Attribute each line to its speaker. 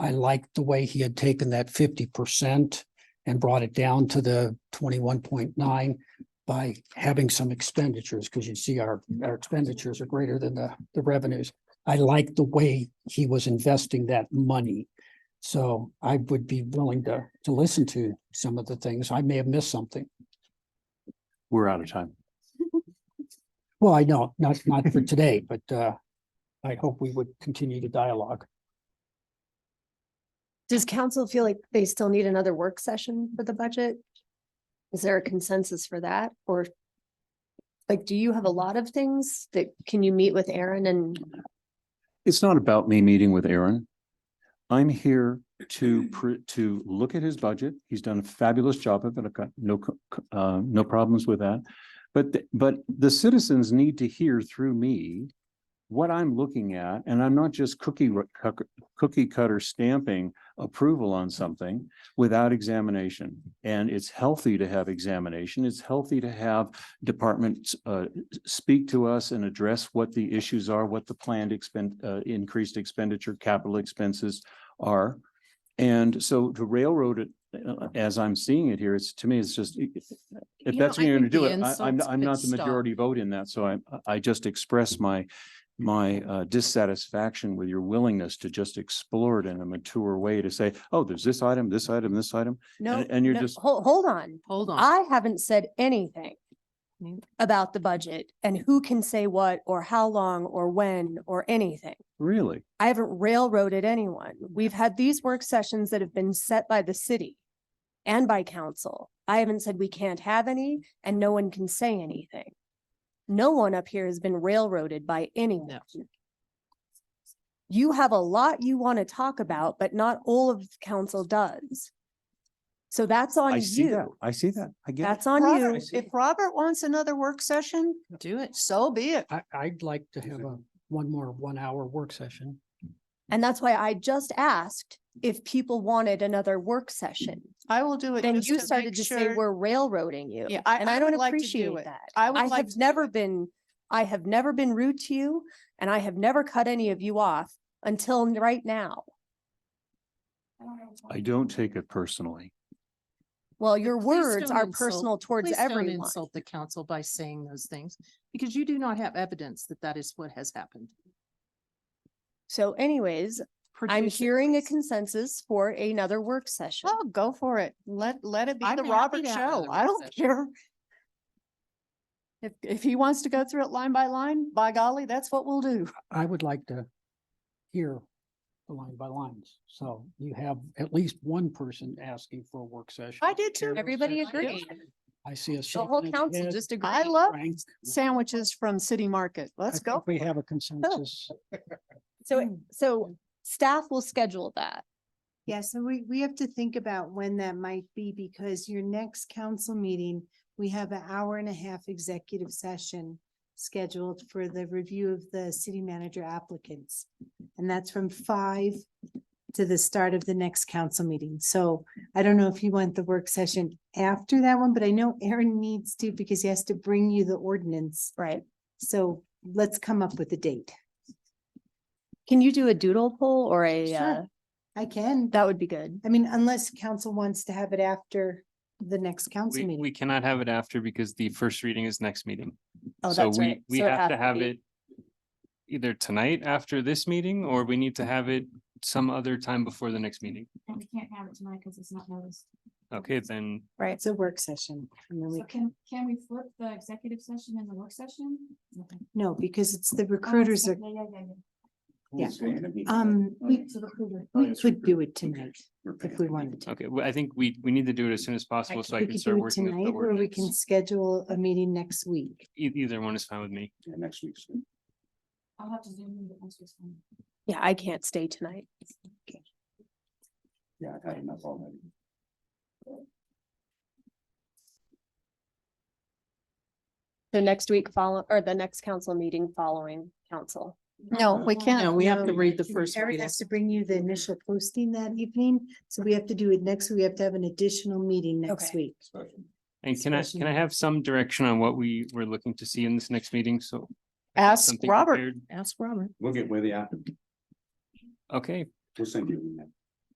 Speaker 1: I liked the way he had taken that fifty percent and brought it down to the twenty-one point nine by having some expenditures, because you see our, our expenditures are greater than the, the revenues. I liked the way he was investing that money. So I would be willing to, to listen to some of the things. I may have missed something.
Speaker 2: We're out of time.
Speaker 1: Well, I know, not, not for today, but, uh, I hope we would continue the dialogue.
Speaker 3: Does council feel like they still need another work session for the budget? Is there a consensus for that or? Like, do you have a lot of things that, can you meet with Aaron and,
Speaker 2: It's not about me meeting with Aaron. I'm here to, pr- to look at his budget. He's done a fabulous job of it. I've got no, co- co- uh, no problems with that. But, th- but the citizens need to hear through me what I'm looking at, and I'm not just cookie, ru- cuck- cookie cutter stamping approval on something without examination. And it's healthy to have examination. It's healthy to have departments, uh, speak to us and address what the issues are, what the planned expend, uh, increased expenditure, capital expenses are. And so to railroad it, uh, as I'm seeing it here, it's, to me, it's just, if
Speaker 4: You
Speaker 2: that's
Speaker 4: know,
Speaker 2: what
Speaker 4: I
Speaker 2: you're gonna
Speaker 4: think
Speaker 2: do
Speaker 4: the
Speaker 2: it, I, I'm,
Speaker 4: insults
Speaker 2: I'm not
Speaker 4: could
Speaker 2: the
Speaker 4: stop.
Speaker 2: majority vote in that, so I, I just express my, my uh, dissatisfaction with your willingness to just explore it in a mature way to say, oh, there's this item, this item, this item.
Speaker 3: no?
Speaker 2: And- and you're
Speaker 3: no,
Speaker 2: just-
Speaker 3: Hold, hold on.
Speaker 4: Hold on. Mm.
Speaker 3: I haven't said anything
Speaker 4: Me-
Speaker 3: about the budget and who can say what or how long or when or anything.
Speaker 2: Really?
Speaker 3: I haven't railroaded anyone. We've had these work sessions that have been set by the city and by council. I haven't said we can't have any and no one can say anything. No one up here has been railroaded by anyone. You have a lot you want to talk about, but not all of council does. So that's
Speaker 2: I
Speaker 3: on
Speaker 2: see that.
Speaker 3: you.
Speaker 2: I see that. I get it.
Speaker 3: That's on
Speaker 5: Robert,
Speaker 3: you.
Speaker 2: see.
Speaker 5: If Robert wants another work session,
Speaker 4: Do it.
Speaker 5: so be it.
Speaker 1: I, I'd like to have a, one more one-hour work session.
Speaker 3: And that's why I just asked if people wanted another work session.
Speaker 5: I will do it.
Speaker 3: Then
Speaker 5: just
Speaker 3: you
Speaker 5: to
Speaker 3: started
Speaker 5: make
Speaker 3: to say
Speaker 5: sure-
Speaker 3: we're railroading you.
Speaker 5: Yeah, I-
Speaker 3: And
Speaker 5: I
Speaker 3: I don't
Speaker 5: would like to do
Speaker 3: appreciate
Speaker 5: it.
Speaker 3: that.
Speaker 5: I would
Speaker 3: I
Speaker 5: like
Speaker 3: have
Speaker 5: to do
Speaker 3: never
Speaker 5: it.
Speaker 3: been, I have never been rude to you and I have never cut any of you off until n- right now.
Speaker 2: I don't take it personally.
Speaker 3: Well, your
Speaker 4: please
Speaker 3: words
Speaker 4: don't
Speaker 3: are
Speaker 4: insult-
Speaker 3: personal towards
Speaker 4: Please don't
Speaker 3: everyone.
Speaker 4: insult the council by saying those things because you do not have evidence that that is what has happened.
Speaker 3: So anyways, I'm
Speaker 4: Produce it,
Speaker 3: hearing a
Speaker 4: please.
Speaker 3: consensus for another work session.
Speaker 5: Oh, go for it. Let, let it be
Speaker 4: I'm
Speaker 5: the
Speaker 4: happy
Speaker 5: Robert
Speaker 4: to have
Speaker 5: show.
Speaker 4: another
Speaker 5: I
Speaker 4: work
Speaker 5: don't
Speaker 4: session.
Speaker 5: care. If, if he wants to go through it line by line, by golly, that's what we'll do.
Speaker 1: I would like to hear the line by lines. So you have at least one person asking for a work session.
Speaker 5: I did too.
Speaker 1: Hear those
Speaker 3: Everybody
Speaker 1: sessions.
Speaker 3: agree?
Speaker 1: I see a.
Speaker 3: The whole council just
Speaker 5: I
Speaker 3: agreed.
Speaker 5: love sandwiches from City Market. Oh, Let's go. Oh.
Speaker 1: We have a consensus.
Speaker 3: So, so staff will schedule that.
Speaker 6: Yeah, so we, we have to think about when that might be because your next council meeting, we have an hour and a half executive session scheduled for the review of the city manager applicants. And that's from five to the start of the next council meeting. So I don't know if you want the work session after that one, but I know Aaron needs to because he has to bring you the ordinance.
Speaker 3: Right.
Speaker 6: So let's come up with a date.
Speaker 3: Can you do a doodle poll or a,
Speaker 6: Sure.
Speaker 3: uh,
Speaker 6: I can.
Speaker 3: that would be good.
Speaker 6: I mean, unless council wants to have it after the next council
Speaker 7: We, we
Speaker 6: meeting.
Speaker 7: cannot have it after because the first reading is next meeting.
Speaker 3: Oh,
Speaker 7: So
Speaker 3: that's
Speaker 7: we-
Speaker 3: right.
Speaker 7: We
Speaker 3: So it has
Speaker 7: have to
Speaker 3: to
Speaker 7: have
Speaker 3: be-
Speaker 7: it either tonight after this meeting, or we need to have it some other time before the next meeting.
Speaker 6: And we can't have it tonight because it's not noticed.
Speaker 7: Okay, then
Speaker 3: Right.
Speaker 6: It's a work session. and then we-
Speaker 8: So can, can we flip the executive session and the work session? Okay.
Speaker 6: No, because it's the
Speaker 8: Oh,
Speaker 6: recruiters
Speaker 8: so-
Speaker 6: are,
Speaker 8: Yeah, yeah, yeah, yeah.
Speaker 6: yeah.
Speaker 4: Uh,
Speaker 6: Um, we, we could do it tonight if we wanted to.
Speaker 7: Okay, well, I think we, we need to do it as soon as possible so I
Speaker 6: We
Speaker 7: can
Speaker 6: could
Speaker 7: start
Speaker 6: do it
Speaker 7: working with the
Speaker 6: tonight Or we can
Speaker 7: ordinance.
Speaker 6: schedule a meeting next week.
Speaker 7: E- Either one is fine with me.
Speaker 2: Next week's.
Speaker 8: I'll have to zoom in, but that's just fine.
Speaker 3: Yeah, I can't stay tonight.
Speaker 2: Yeah, I've had enough already.
Speaker 3: So next week follow, or the next council meeting following council.
Speaker 5: No, we can't.
Speaker 4: No, we have to
Speaker 6: No,
Speaker 4: read the first
Speaker 6: Eric
Speaker 4: reading.
Speaker 6: has to bring you the initial posting that evening, so we have to do it next, we have to have an additional meeting next
Speaker 3: Okay.
Speaker 6: week.
Speaker 7: And can I, can I have some direction on what we were looking to see in this next meeting? So. I have
Speaker 5: Ask
Speaker 7: something
Speaker 5: Robert.
Speaker 7: prepared.
Speaker 4: Ask Robert.
Speaker 9: We'll get with you after.
Speaker 7: Okay,
Speaker 9: We'll send you. an email.